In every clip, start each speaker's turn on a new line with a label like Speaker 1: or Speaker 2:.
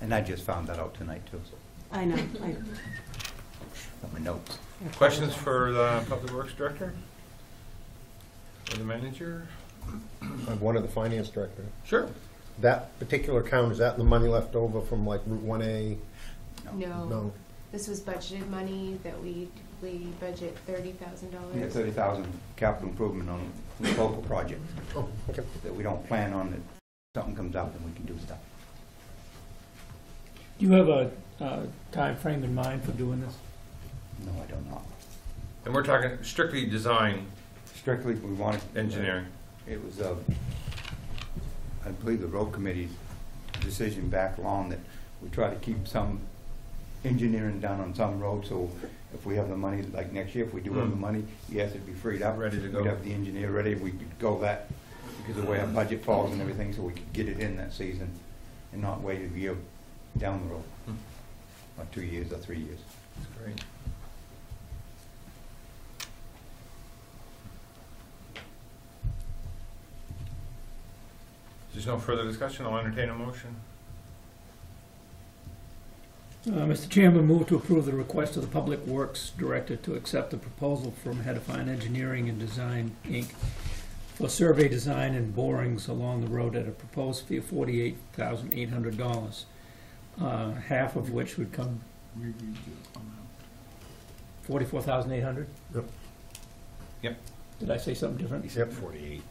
Speaker 1: And I just found that out tonight, too, so,
Speaker 2: I know. I-
Speaker 1: from my notes.
Speaker 3: Questions for the Public Works Director? Or the manager?
Speaker 4: I have one of the finance director.
Speaker 3: Sure.
Speaker 4: That particular account, is that the money left over from like Route One A?
Speaker 5: No,
Speaker 4: No.
Speaker 5: this was budgeted money that we, we budget thirty thousand
Speaker 1: We have
Speaker 5: dollars.
Speaker 1: 30,000 capital improvement on the local project
Speaker 4: Oh, okay.
Speaker 1: that we don't plan on, that something comes up and we can do stuff.
Speaker 6: Do you have a uh, timeframe in mind for doing this?
Speaker 1: No, I don't know.
Speaker 3: And we're talking strictly design
Speaker 1: Strictly, we wanted.
Speaker 3: engineering.
Speaker 1: It was, uh, I believe, the road committee's decision back long that we try to keep some engineering done on some roads, so if we have the money, like next year, if we do have the
Speaker 3: Hmm.
Speaker 1: money, yes, it'd be freed up.
Speaker 3: Ready to go.
Speaker 1: We'd have the engineer ready, we could go that, because of the way our budget falls and everything, so we could get it in that season and not wait a year down the road,
Speaker 3: Hmm.
Speaker 1: or two years or three years.
Speaker 3: That's great. If There's no further discussion, I'll entertain a motion.
Speaker 6: Uh, Mr. Chairman, move to approve the request of the Public Works Director to accept the proposal from Hedifine Engineering and Design, Inc. for survey design and borings along the road at a proposed fee of forty-eight thousand eight hundred dollars, uh, half of which would come. Forty-four thousand eight hundred?
Speaker 4: Yep.
Speaker 3: Yep.
Speaker 6: Did I say something different?
Speaker 4: Except forty-eight.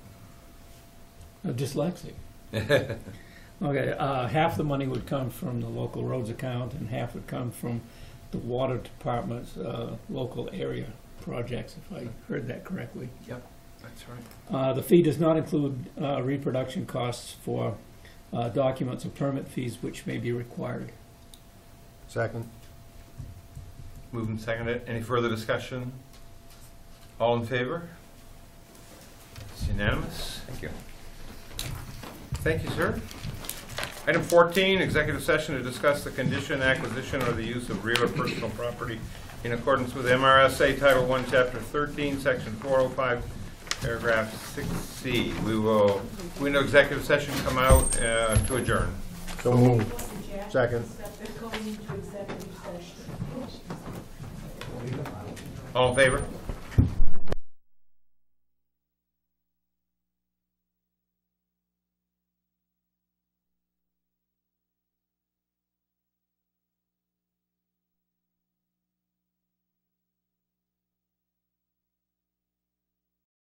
Speaker 6: I'm Uh, dyslexic. Okay, uh, half the money would come from the local roads account and half would come from the water department's, uh, local area projects, if I heard that correctly.
Speaker 3: That's right.
Speaker 6: Uh, the fee does not include, uh, reproduction costs for, uh, documents or permit fees which may be required.
Speaker 4: Second?
Speaker 3: Moved and seconded. Any further discussion? All in favor? It's unanimous. Thank you. Thank you, sir. Item 14, executive session to discuss the condition, acquisition, or the use of real or personal property in accordance with MRSA Title I, Chapter 13, Section 405, Paragraph 6C. We will, we know executive session, come out uh, to adjourn.
Speaker 4: So moved. Second.
Speaker 3: All in favor?